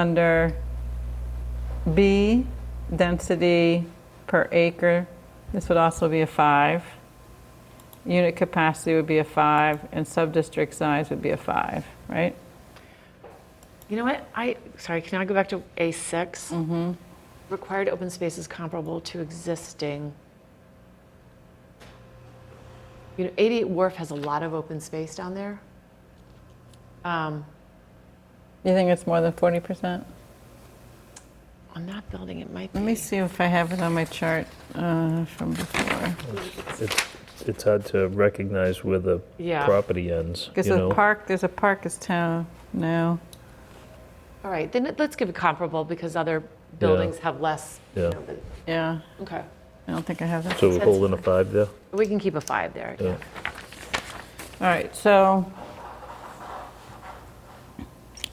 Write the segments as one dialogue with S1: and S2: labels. S1: Under B, density per acre, this would also be a five. Unit capacity would be a five, and sub-district size would be a five, right?
S2: You know what? I, sorry, can I go back to A6?
S3: Mm-hmm.
S2: Required open space is comparable to existing. You know, 88 Wharf has a lot of open space down there. Um,
S1: You think it's more than 40%?
S2: on that building, it might be.
S1: Let me see if I have it on my chart uh, from before.
S3: It's, it's hard to recognize where the
S2: Yeah.
S3: property ends,
S1: Because
S3: you
S1: the
S3: know?
S1: park, there's a park is town now.
S2: All right, then let's give it comparable because other buildings have less. you
S3: Yeah.
S2: know, than-
S1: Yeah,
S2: Okay.
S1: I don't think I have that.
S3: So we're holding a five there?
S2: We can keep a five there. I
S3: Yeah.
S2: guess.
S1: All right, so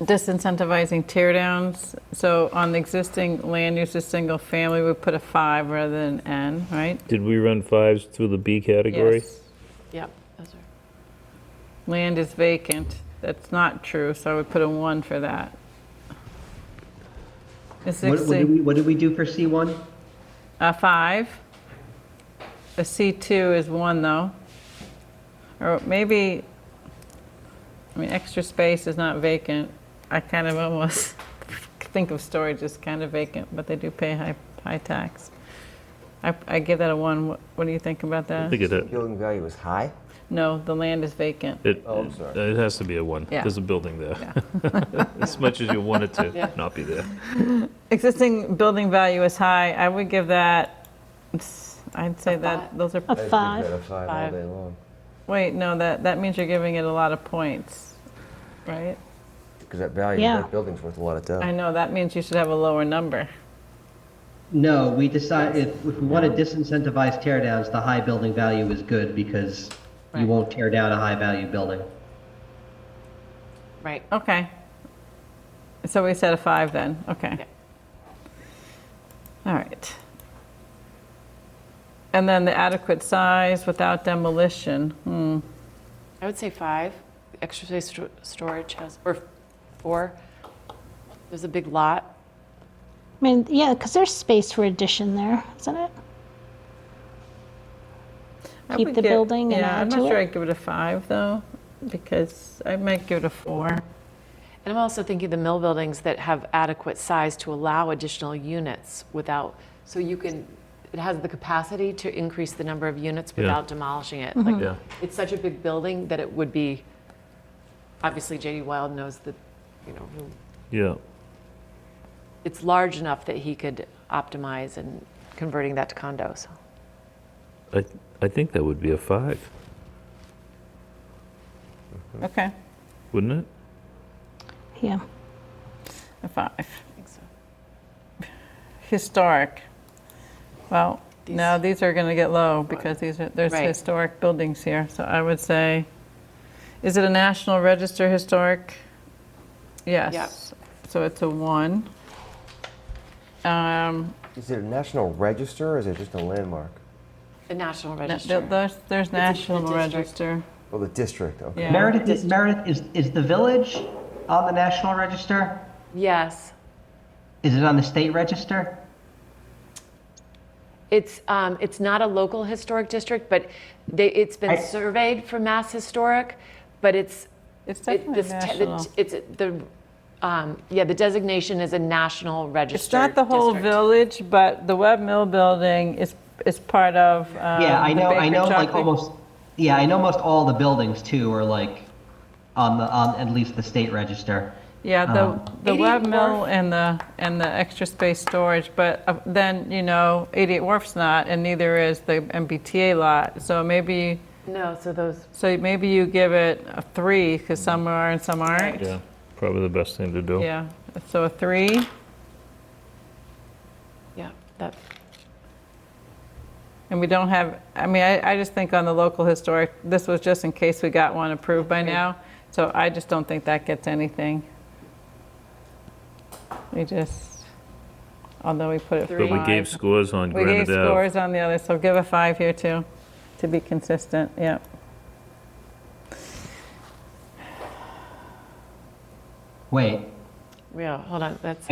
S1: disincentivizing tear downs. So on the existing land use as single family, we put a five rather than N, right?
S3: Did we run fives through the B category?
S1: Yes.
S2: Yep. those are-
S1: Land is vacant. That's not true, so I would put a one for that.
S4: What, what, did
S1: Existing,
S4: we, what did we do for C1?
S1: a Uh, five. A C2 is one though. Or maybe, I mean, extra space is not vacant. I kind of almost think of storage as kind of vacant, but they do pay high, high tax. I, I give that a one. What, what do you think about
S3: I
S1: that?
S3: think it,
S5: Building value is high?
S1: No, the land is vacant.
S3: it,
S5: Oh, I'm sorry.
S3: it has to be a one.
S1: Yeah.
S3: There's a building there. As much as you want it to not be there.
S1: Existing building value is high. I would give that, I'd say that, those are,
S5: A five? A five all
S2: Five.
S5: day long,
S1: wait, no, that, that means you're giving it a lot of points, right?
S5: because that value,
S6: Yeah.
S5: that building's worth a lot of
S1: I
S5: dough.
S1: know, that means you should have a lower number.
S4: No, we decide, if, if we want to disincentivize teardowns, the high building value is good because you
S2: Right.
S4: won't tear down a high value building.
S2: Right.
S1: Okay. So we said a five then, okay.
S2: Yeah.
S1: All right. And then the adequate size without demolition, hmm,
S2: I would say five. Extra space sto- storage has, or four. There's a big lot.
S6: I mean, yeah, because there's space for addition there, isn't it?
S1: I
S6: Keep
S1: would
S6: the
S1: give-
S6: building and
S1: Yeah, I'm
S6: add
S1: not
S6: to
S1: sure
S6: it?
S1: I'd give it a five though, because I might give it a four.
S2: And I'm also thinking the mill buildings that have adequate size to allow additional units without, so you can, it has the capacity to increase the number of units without demolishing it.
S1: Hmm.
S2: Like,
S3: Yeah.
S2: It's such a big building that it would be, obviously JD Wild knows that, you know, he'll-
S3: Yeah.
S2: it's large enough that he could optimize and converting that to condos.
S3: I, I think that would be a five,
S6: Hmm.
S1: Okay,
S3: wouldn't it?
S6: Yeah.
S1: a five.
S2: I think so.
S1: Historic. Well, no, these are going to get low because these are, there's
S2: Right.
S1: historic buildings here. So I would say, is it a National Register historic? Yes. So it's a one. Um,
S5: Is it a national register or is it just a landmark?
S2: The National
S1: no,
S2: Register.
S1: th- There's, there's National
S2: district.
S1: Register.
S5: Oh, the district, okay.
S1: Yeah.
S4: Meredith, is, Meredith is, is the village on the National Register?
S2: Yes.
S4: Is it on the state register?
S2: It's, um, it's not a local historic district, but they, it's been
S4: I-
S2: surveyed for Mass Historic, but it's,
S1: It's
S2: it,
S1: definitely
S2: this te- the-
S1: national.
S2: it's the, um, yeah, the designation is a national register.
S1: It's not the whole
S2: district.
S1: village, but the Webb Mill Building is, is part of. um,
S4: Yeah, I know, I know, like
S1: almost.
S4: almost, yeah, I know most all the buildings too are like on the, on at least the state register.
S1: Yeah,
S3: Um,
S1: the, the
S2: 88
S1: web mill
S2: Wharf.
S1: and the, and the extra space storage, but uh, then, you know, 88 Wharf's not, and neither is the MBTA lot. So maybe,
S2: No, so those,
S1: so maybe you give it a three, because some are and some aren't.
S3: Yeah. Probably the best thing to do.
S1: Yeah, so a three,
S2: yeah, that,
S1: and we don't have, I mean, I, I just think on the local historic, this was just in case we got one approved by now. So I just don't think that gets anything. We just, although we put it
S2: But
S3: But we
S1: five.
S3: gave scores on
S1: We gave
S3: Granite Ave.
S1: scores on the other, so give a five here too, to be consistent, yep.
S4: Wait,
S2: yeah, hold on, that's.